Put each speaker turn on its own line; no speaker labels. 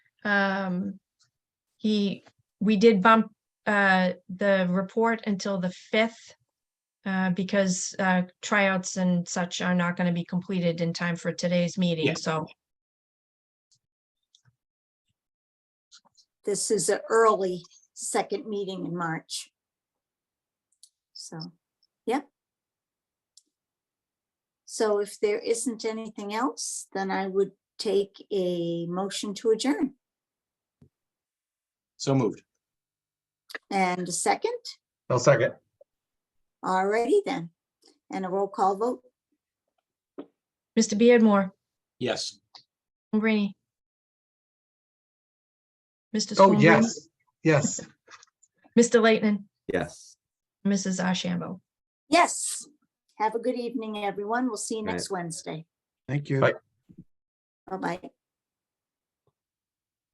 um, he, we did bump, uh, the report until the fifth. Uh, because, uh, tryouts and such are not gonna be completed in time for today's meeting,
Yeah.
so,
This is an early second meeting in March. So, yeah. So if there isn't anything else, then I would take a motion to adjourn
So moved.
and a second.
I'll second.
Alrighty then. And a roll call vote.
Mr. Beardmore,
Yes.
Greeny. Mr.
Oh,
Schoenbrood,
yes, yes.
Mr. Leighton,
Yes.
Mrs. Ashambo.
Yes. Have a good evening, everyone. We'll see you
Right.
next Wednesday.
Thank you.
Bye.
Bye-bye.